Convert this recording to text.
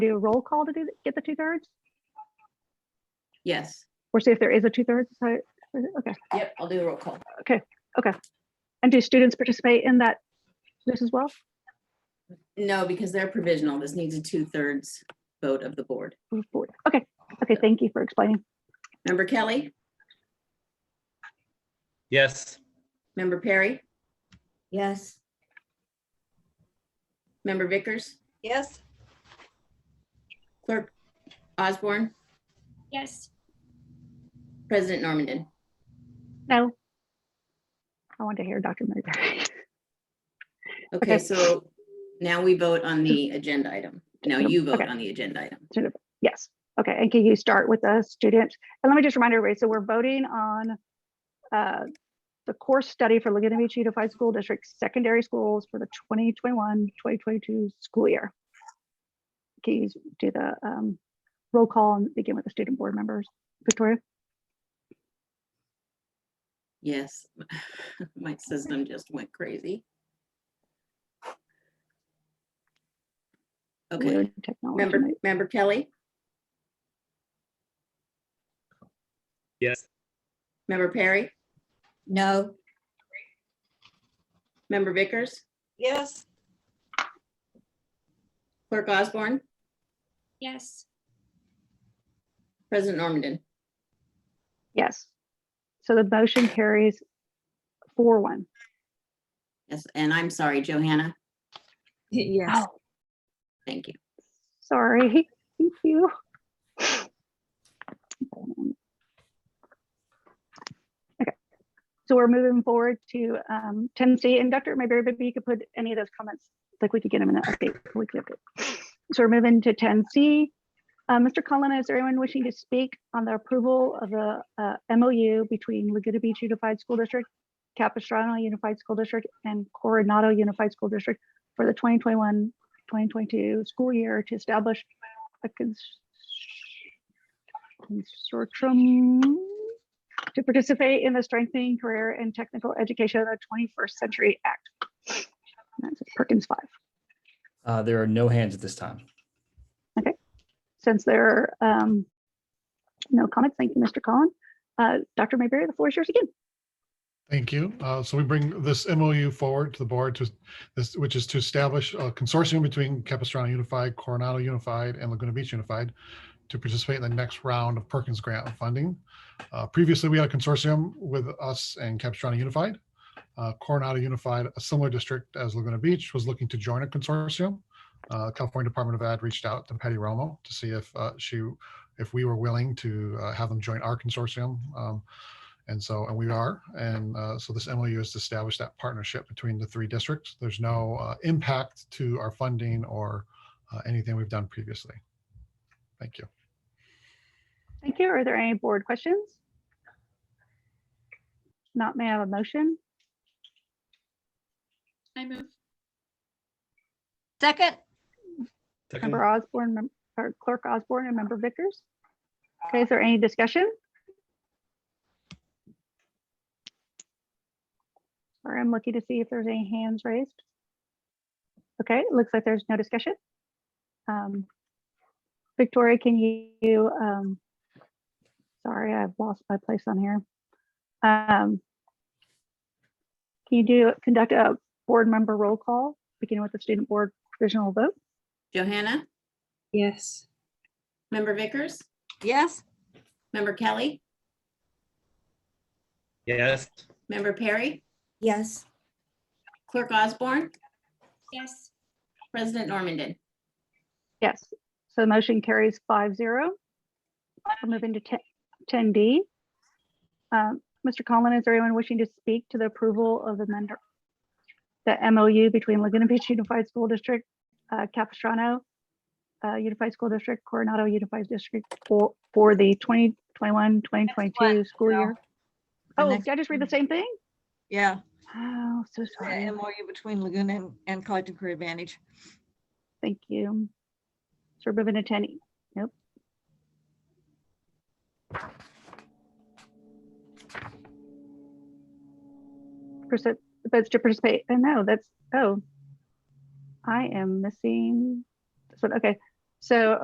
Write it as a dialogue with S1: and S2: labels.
S1: do a roll call to do, th- get the two thirds?
S2: Yes.
S1: Or see if there is a two thirds? So, okay.
S2: Yep, I'll do the roll call.
S1: And do students participate in that, this as well?
S2: No, because they're provisional. This needs a two-thirds vote of the board.
S1: Move forward. Okay, okay, thank you for explaining.
S2: Member Kelly,
S3: Yes.
S2: member Perry,
S4: Yes.
S2: member Vickers,
S4: Yes.
S2: clerk Osborne,
S5: Yes.
S2: President Normandin.
S1: No. I want to hear Dr. Mayberry.
S2: Okay,
S1: Okay.
S2: so now we vote on the agenda item. Now you vote
S1: Okay.
S2: on the agenda item.
S1: Yes, okay, and can you start with the student? And let me just remind everybody, so we're voting on uh, the course study for Laguna Beach Unified School District Secondary Schools for the 2021, 2022 school year. Can you do the um, roll call and begin with the student board members? Victoria?
S2: Yes, my system just went crazy. Okay,
S1: Weird technology
S2: member,
S1: night.
S2: member Kelly,
S3: Yes.
S2: member Perry,
S4: No.
S2: member Vickers,
S4: Yes.
S2: clerk Osborne,
S5: Yes.
S2: President Normandin.
S1: Yes. So the motion carries four one.
S2: Yes, and I'm sorry, Johanna.
S4: Yes.
S1: Oh,
S2: Thank you.
S1: Sorry, thank you. Okay, So we're moving forward to um, 10C and Dr. Mayberry, maybe you could put any of those comments, like we could get them in an update. we could update. So we're moving to 10C. Uh, Mr. Cullen, is there anyone wishing to speak on the approval of the uh, MOU between Laguna Beach Unified School District, Capistrano Unified School District, and Coronado Unified School District for the 2021 2022 school year to establish a cons- consortium to participate in the Strengthening Career and Technical Education of the 21st Century Act. And That's Perkins 5.
S6: Uh, there are no hands at this time.
S1: Since there are um, no comments, thank you, Mr. Collin. Uh, Dr. Mayberry, the floor is yours again.
S7: Thank you. Uh, So we bring this MOU forward to the board to this, which is to establish a consortium between Capistrano Unified, Coronado Unified, and Laguna Beach Unified to participate in the next round of Perkins Grant funding. Uh, Previously, we had a consortium with us and Capistrano Unified. Uh, Coronado Unified, a similar district as Laguna Beach, was looking to join a consortium. Uh, California Department of Ed reached out to Patty Romo to see if uh, she, if we were willing to uh, have them join our consortium. Um, and so, and we are. And uh, so this MOU has established that partnership between the three districts. There's no uh, impact to our funding or uh, anything we've done previously. Thank you.
S1: Thank you. Are there any board questions? Not, may I have a motion?
S5: I move.
S4: Second?
S3: Second.
S1: Member Osborne, mem- or Clerk Osborne and Member Vickers. Okay, is there any discussion? Or I'm looking to see if there's any hands raised. Okay, it looks like there's no discussion. Um, Victoria, can you, um, sorry, I've lost my place on here. Um, Can you do, conduct a board member roll call, beginning with the student board provisional vote?
S2: Johanna,
S4: Yes.
S2: member Vickers,
S4: Yes.
S2: member Kelly,
S3: Yes.
S2: member Perry,
S4: Yes.
S2: clerk Osborne,
S5: Yes.
S2: President Normandin.
S1: Yes, so the motion carries five zero. We're moving to ten D. Mr. Collin, is there anyone wishing to speak to the approval of the mender- the MOU between Laguna Beach Unified School District, uh, Capistrano uh, Unified School District, Coronado Unified District for, for the 2021-2022 school
S8: no.
S1: year?
S8: The
S1: Oh,
S8: next
S1: did I just read the same thing?
S8: Yeah,
S1: Oh, so
S8: the
S1: sorry.
S8: MOU between Laguna and- and Collective Career Advantage.
S1: Thank you. So we're moving to ten E. Nope. Percent, that's to participate. Oh, no, that's, oh. I am missing. this one. Okay, So